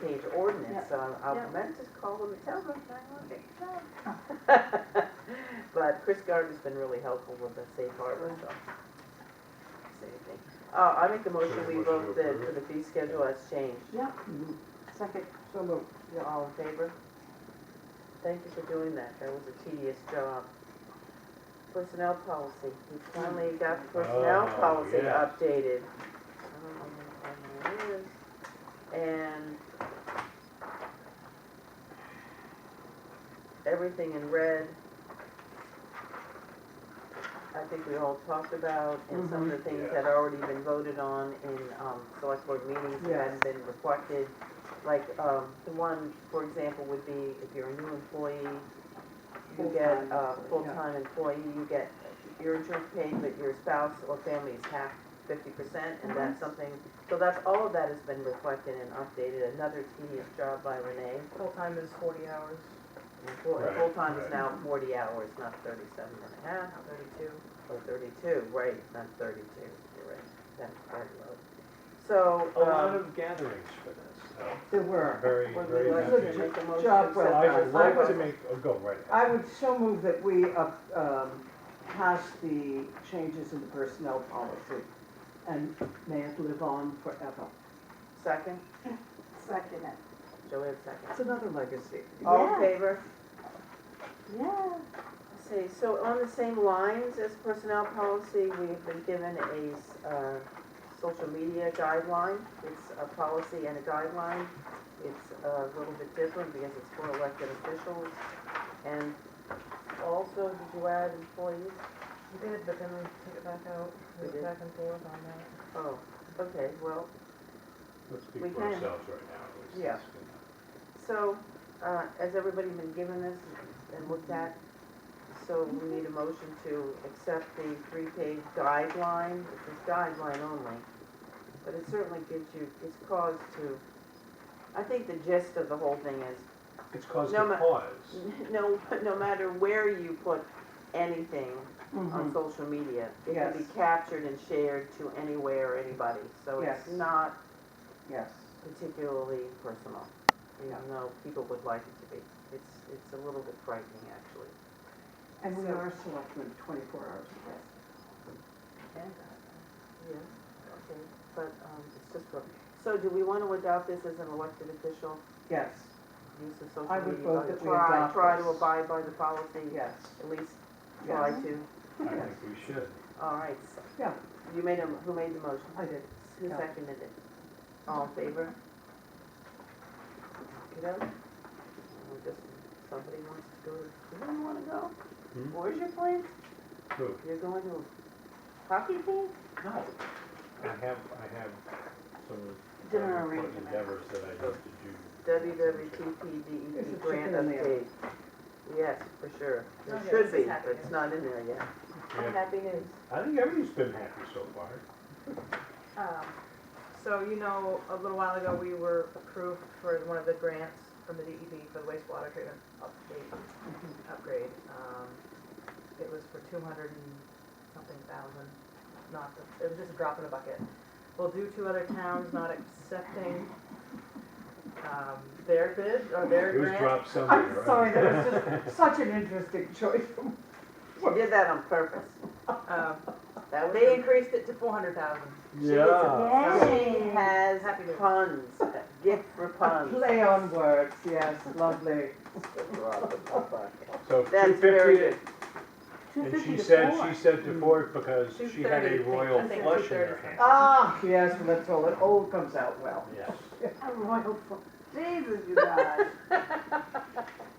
to ordinance, so I- I Yeah. meant to call them and tell them, I want to But Chris Gardner's been really helpful with the safe harbor stuff. Uh, I make the motion, we Motion to vote the, approve for it. the fee schedule as changed. Yeah, second. So moved. You're all in favor? Thank you for doing that, that was a tedious job. Personnel policy, we finally got the personnel Oh, policy yes. updated. I don't know where- I don't know where it is. And everything in red, I think we all talked about, and some of the things that had already been voted on in, um, select board meetings that hadn't been reflected. Like, um, the one, for example, would be if you're a new employee, you get Full-time a employee, full-time employee, you get your insurance paid, but your spouse or family is half fifty percent, Mm-hmm. and that's something, so that's, all of that has been reflected and updated, another tedious job by Renee. Full-time is forty hours, And full- and Right, Full-time is right. now forty hours, not thirty-seven and a half, not thirty-two. or thirty-two, right, not thirty-two, you're right, that's very low. So, A lot um, of gatherings for this, so There were. very, would very we like much. to make a motion to Job accept well I that? would like to make, oh, go right I ahead. would so move that we uh, um, pass the changes in the personnel policy and may it live on forever. Second, Second it. Joanne second. It's another legacy. All in Yeah. favor? Yeah. Let's see, so on the same lines as personnel policy, we've been given a, uh, social media guideline. It's a policy and a guideline. It's a little bit different because it's for elected officials. And also, did you add employees? We did, but then we took it back out, We we did. went back and forth on that. Oh, okay, well, Let's speak we for can. ourselves right now. at least. Yeah. so, uh, has everybody been given this and looked at? So we need a motion to accept the three-page guideline, which is guideline only. But it certainly gives you, it's cause to, I think the gist of the whole thing is, It's caused No, a ma- pause. no, no matter where you put anything on Mhm. social media, it can be Yes. captured and shared to anywhere or anybody. So it's Yes. not Yes. particularly personal, even though people would like it to be. It's, it's a little bit frightening, actually. And we So- are selectmen 24 hours a day. uh, Yes, okay, but, um, it's just, for- so do we want to adopt this as an elected official, Yes, use of social media? I would vote by- that we try- adopt Try to this. abide by the policy, yes, at least try yes. to. I Yes. think we should. All right, so Yeah, you made a, who made the motion? I did. Who Yeah. seconded it? All in favor? Get out. Or Just, somebody wants to go, do you wanna go? Hmm? Where's your place? True. You're going to hockey team? No. I have, I have some Dinner very important arrangement. endeavors that I have to do. There's a WWTP grant chicken in there. update. Yes, for sure. It Oh, yeah, should this be, is but happening. it's not in there yet. Yeah. Happy news. I think everybody's been happy so far. Um, So you know, a little while ago, we were approved for one of the grants from the DEP for the wastewater treatment update, upgrade. Um, It was for two hundred and something thousand, not, the- it was just a drop in the bucket. Well, due to other towns not accepting um, their bid or their It was grant. dropped somewhere, I'm right? sorry, that was just such an interesting choice. She did that on purpose. um, That was. They increased it to four hundred thousand. Uh, Yeah. She has Happy to- puns, gift for A puns. play on words, yes, lovely. So That's two very fifty, good. and she said, she said to four because she had 230, I a think. royal I think flush in her 230. hand. Ah, yes, let's all, it all comes out well. Yes. A royal, fo- Jesus, you guys.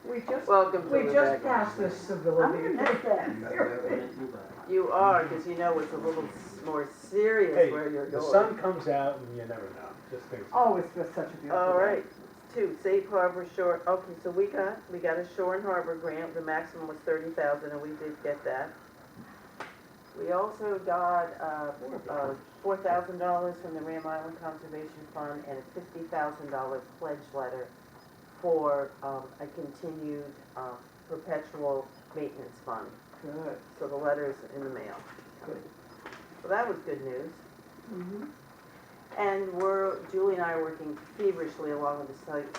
We just, Welcome we to just Rebecca. passed this I'm civility. gonna miss that. You are, because you know it's a little s- more serious Hey, where you're The going. sun comes out and you never know, just things. Oh, it's just such a beautiful. All day. right, two, safe harbor shore, okay, so we got, we got a shore and harbor grant, the maximum was thirty thousand, and we did get that. We also got, uh, uh, Oh, four thousand dollars from the Ram Island Conservation Fund and a fifty thousand dollar pledge letter for, um, a continued, uh, perpetual maintenance fund. Good. So the letter's in the mail. Good. So that was good news. Mm-hmm. And we're, Julie and I are working feverishly along with the site